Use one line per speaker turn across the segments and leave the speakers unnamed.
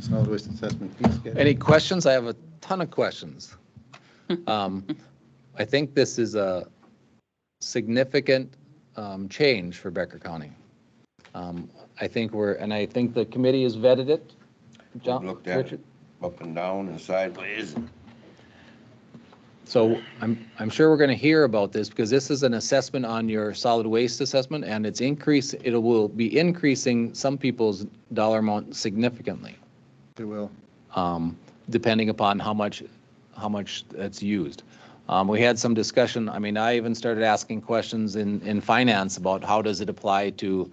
solid waste assessment fee schedule.
Any questions? I have a ton of questions. Um, I think this is a significant um, change for Becker County. Um, I think we're, and I think the committee has vetted it. John,
Looked at it.
Richard?
up and down and sideways.
So I'm, I'm sure we're going to hear about this because this is an assessment on your solid waste assessment and it's increase, it will be increasing some people's dollar amount significantly,
It will.
um, depending upon how much, how much that's used. Um, We had some discussion, I mean, I even started asking questions in, in finance about how does it apply to,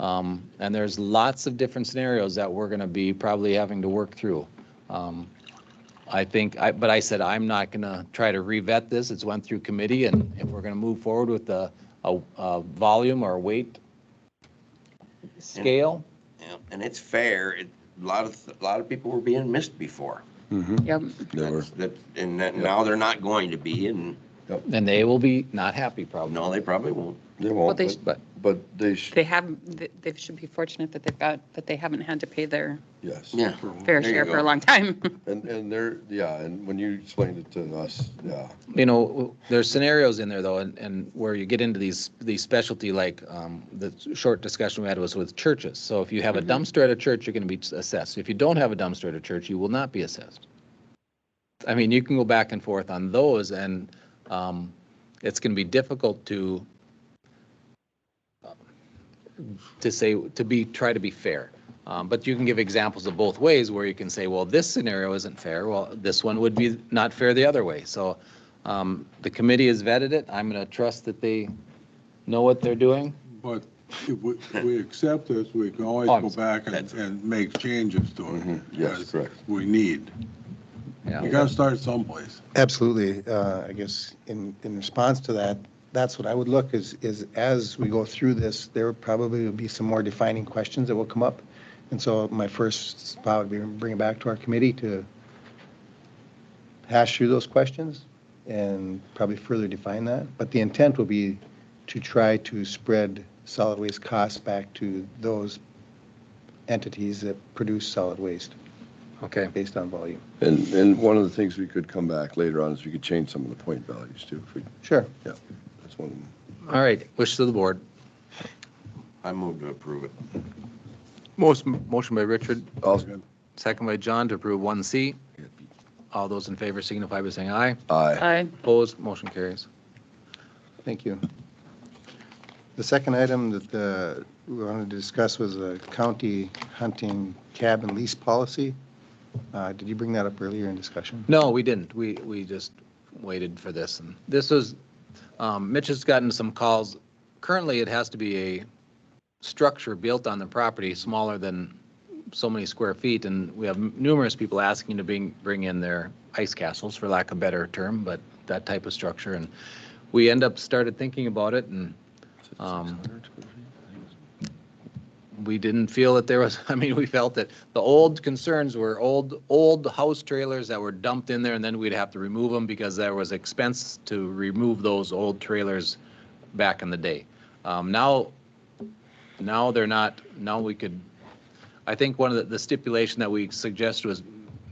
um, and there's lots of different scenarios that we're going to be probably having to work through. Um, I think, I, but I said, I'm not going to try to revet this. It's went through committee and if we're going to move forward with a, a, a volume or weight scale,
Yeah, And it's fair. It, a lot of, a lot of people were being missed before.
Mm-hmm.
Yep,
That's- That, and that, now they're not going to be and,
then they will be not happy probably.
no, they probably won't.
They
Well,
won't,
they-
but,
But
but they, sh-
they have, they- they should be fortunate that they've got, that they haven't had to pay their
yes.
Yeah.
fair
There you
share for a
go.
long time. Uh,
And, and they're, yeah, and when you explained it to us, yeah,
you know, there's scenarios in there though, and, and where you get into these, these specialty, like, um, the short discussion we had was with churches. So if you have a dumpster at a church, you're gonna be assessed. If you don't have a dumpster at a church, you will not be assessed. I mean, you can go back and forth on those and, um, it's gonna be difficult to to say, to be, try to be fair. Um, But you can give examples of both ways where you can say, well, this scenario isn't fair. Well, this one would be not fair the other way. So um, the committee has vetted it. I'm going to trust that they know what they're doing.
But if we, we accept this, we can always go back and, and make changes to it.
Mhm, yes,
as
correct.
We need.
Yeah.
You gotta start someplace.
Absolutely. Uh, I guess in, in response to that, that's what I would look is, is as we go through this, there probably will be some more defining questions that will come up. And so my first spot would be bring it back to our committee to hash through those questions and probably further define that. But the intent will be to try to spread solid waste costs back to those entities that produce solid waste
Okay.
based on volume.
and, and one of the things we could come back later on is we could change some of the point values too, if we,
Sure.
that's one of them.
All right. Wish of the board.
I move to approve it.
Motion, motion by Richard,
Also,
second by John to approve 1C. All those in favor signify by saying aye.
aye,
I
Opposed, motion carries.
Thank you. The second item that uh, we wanted to discuss was a county hunting cabin lease policy. Uh, Did you bring that up earlier in discussion?
No, we didn't. We, we just waited for this. And this was, um, Mitch has gotten some calls. Currently, it has to be a structure built on the property smaller than so many square feet. And we have numerous people asking to bring, bring in their ice castles, for lack of a better term, but that type of structure. And we end up started thinking about it and um, we didn't feel that there was, I mean, we felt that the old concerns were old, old house trailers that were dumped in there and then we'd have to remove them because there was expense to remove those old trailers back in the day. Um, now, now they're not, now we could, I think one of the- the stipulation that we suggested was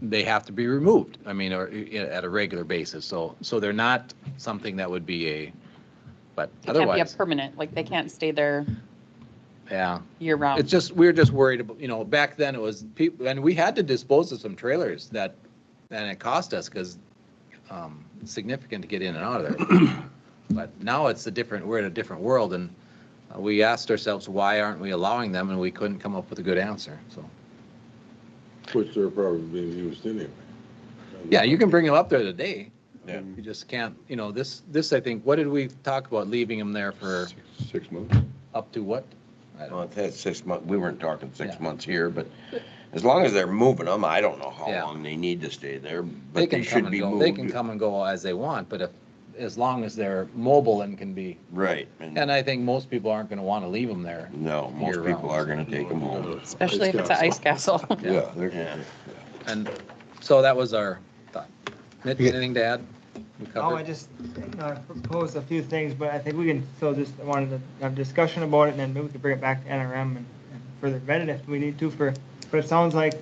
they have to be removed. I mean, or i- at a regular basis. So, so they're not something that would be a, but
It can't be a
otherwise,
permanent, like they can't stay there
yeah.
year
It's
round.
Um,
just, we were just worried about, you know, back then it was people, and we had to dispose of some trailers that, and it cost us because significant to get in and out of there. But now it's a different, we're in a different world and uh, we asked ourselves, why aren't we allowing them? And we couldn't come up with a good answer, so.
Which they're probably being used anyway.
Yeah, you can bring them up there today.
Yeah.
You just can't, you know, this, this, I think, what did we talk about, leaving them there for
six months.
up to what? I don't know.
Well, if that's six months, we weren't talking six
Yeah.
months here, but as long as they're moving them, I don't know how
Yeah.
long they need to stay there,
They
but they
can come
should
and
be
go,
moved.
they can come and go as they want, but if, as long as they're mobile and can be
Right.
And I think most people aren't going to want to leave them there.
No, most
year-round.
people are gonna take them home.
Especially if it's an ice castle.
Yeah, they're,
Yeah.
And so that was our thought. Mitch, anything to add? We
Oh, I
covered.
just uh, proposed a few things, but I think we can still just, I wanted to have a discussion about it, and then maybe we could bring it back to NRM and and further vet it if we need to for, but it sounds like